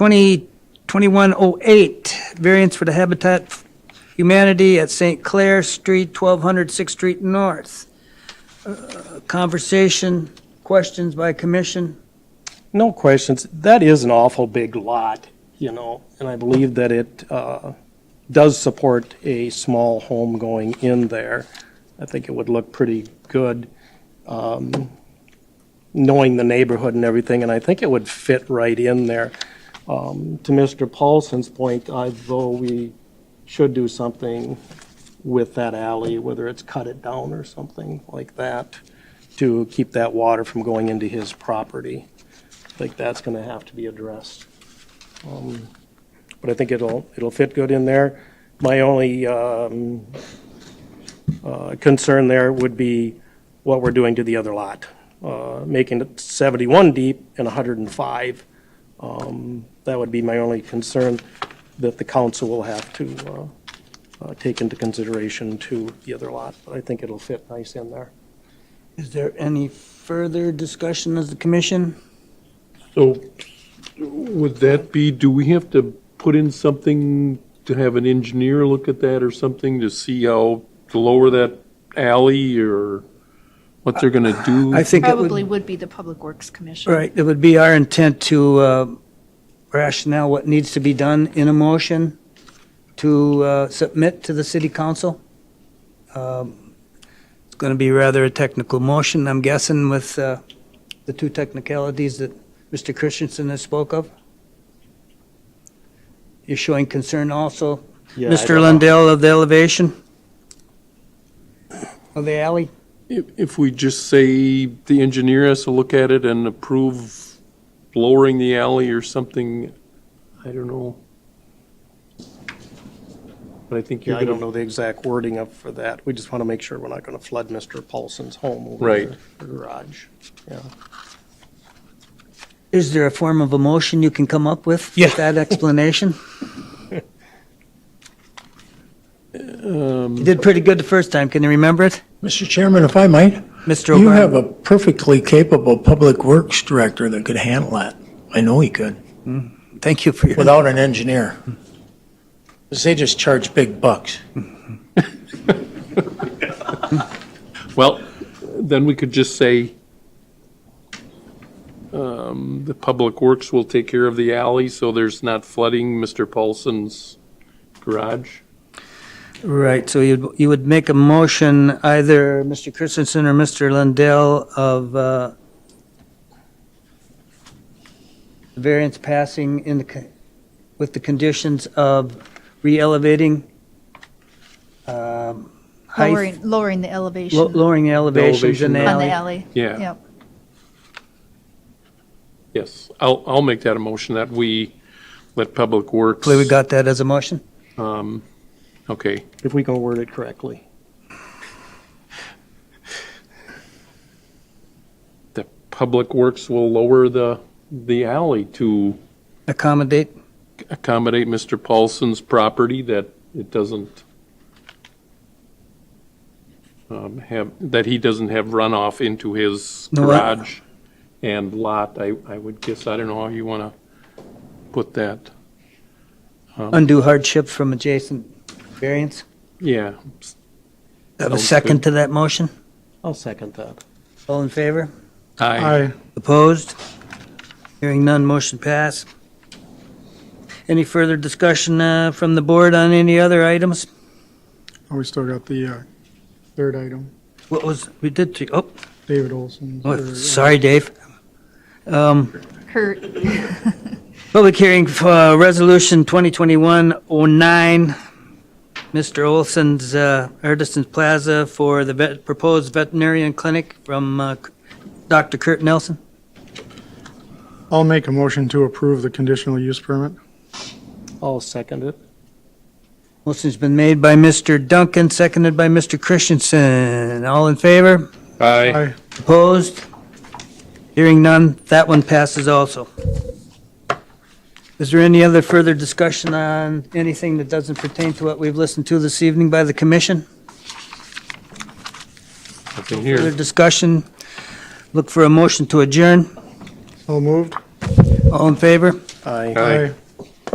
20, 2108, variance for the Habitat for Humanity at St. Clair Street, 1200 6th Street North. Uh, Conversation, questions by commission? No questions. That is an awful big lot, you know, and I believe that it uh, does support a small home going in there. I think it would look pretty good, um, knowing the neighborhood and everything, and I think it would fit right in there. Um, To Mr. Paulson's point, although we should do something with that alley, whether it's cut it down or something like that, to keep that water from going into his property. I think that's going to have to be addressed. Um, But I think it'll, it'll fit good in there. My only um, uh, concern there would be what we're doing to the other lot, uh, making it 71 deep and 105. Um, That would be my only concern that the council will have to uh, uh, take into consideration to the other lot. But I think it'll fit nice in there. Is there any further discussion of the commission? So would that be, do we have to put in something to have an engineer look at that or something to see how to lower that alley or what they're going to do? I think it would, Probably would be the Public Works Commission. right, it would be our intent to uh, rationale what needs to be done in a motion to uh, submit to the city council. Um, It's going to be rather a technical motion, I'm guessing, with uh, the two technicalities that Mr. Christensen has spoke of. You're showing concern also Mr. Lundell of the elevation? Of the alley? If, if we just say the engineer has to look at it and approve lowering the alley or something, I don't know. But I think Yeah, you're I going don't to, know the exact wording of, for that. We just want to make sure we're not going to flood Mr. Paulson's home over Right. the- the garage. Yeah. Is there a form of a motion you can come up with? Yeah. With that explanation? Um, You did pretty good the first time, can you remember it? Mr. Chairman, if I might, Mr. you have O'Brien? a perfectly capable Public Works Director that could handle that. I know he could, Thank you for your, without an engineer. 'Cause they just charge big bucks. well, then we could just say um, the Public Works will take care of the alley so there's not flooding Mr. Paulson's garage. right, so you'd, you would make a motion, either Mr. Christensen or Mr. Lundell of, uh, variance passing in the, co- with the conditions of re-elevating, um, height. Lowering, lowering the elevation Lo- on Lowering elevations in elevation the of- the alley. alley. Yeah. Yep. Yes, I'll, I'll make that a motion that we let Public Works. Hopefully we got that as a motion. um, Okay, If we can word it correctly. the Public Works will lower the, the alley to Accommodate, accommodate Mr. Paulson's property that it doesn't um, have, that he doesn't have runoff into his No, I- garage and lot, I, I would guess, I don't know how you want to put that. undue hardship from adjacent variance. Yeah, Have a Sounds second good. to that motion? I'll second that. All in favor? aye. Opposed? Hearing none, motion passed. Any further discussion uh, from the board on any other items? Oh, we still got the uh, third item, What was, we did, three- oh, David Olson. uh, oh, sorry, Dave. Um, Kurt, Public hearing for uh, Resolution 2021-09, Mr. Olson's uh, Artisans Plaza for the vet- proposed veterinarian clinic from uh, Dr. Kurt Nelson. I'll make a motion to approve the conditional use permit. I'll second it. Motion's been made by Mr. Duncan, seconded by Mr. Christensen. All in favor? Aye. Aye. Opposed? Hearing none, that one passes also. Is there any other further discussion on anything that doesn't pertain to what we've listened to this evening by the commission? Nothing Further here. discussion? Look for a motion to adjourn. All moved? All in favor? Aye. Aye.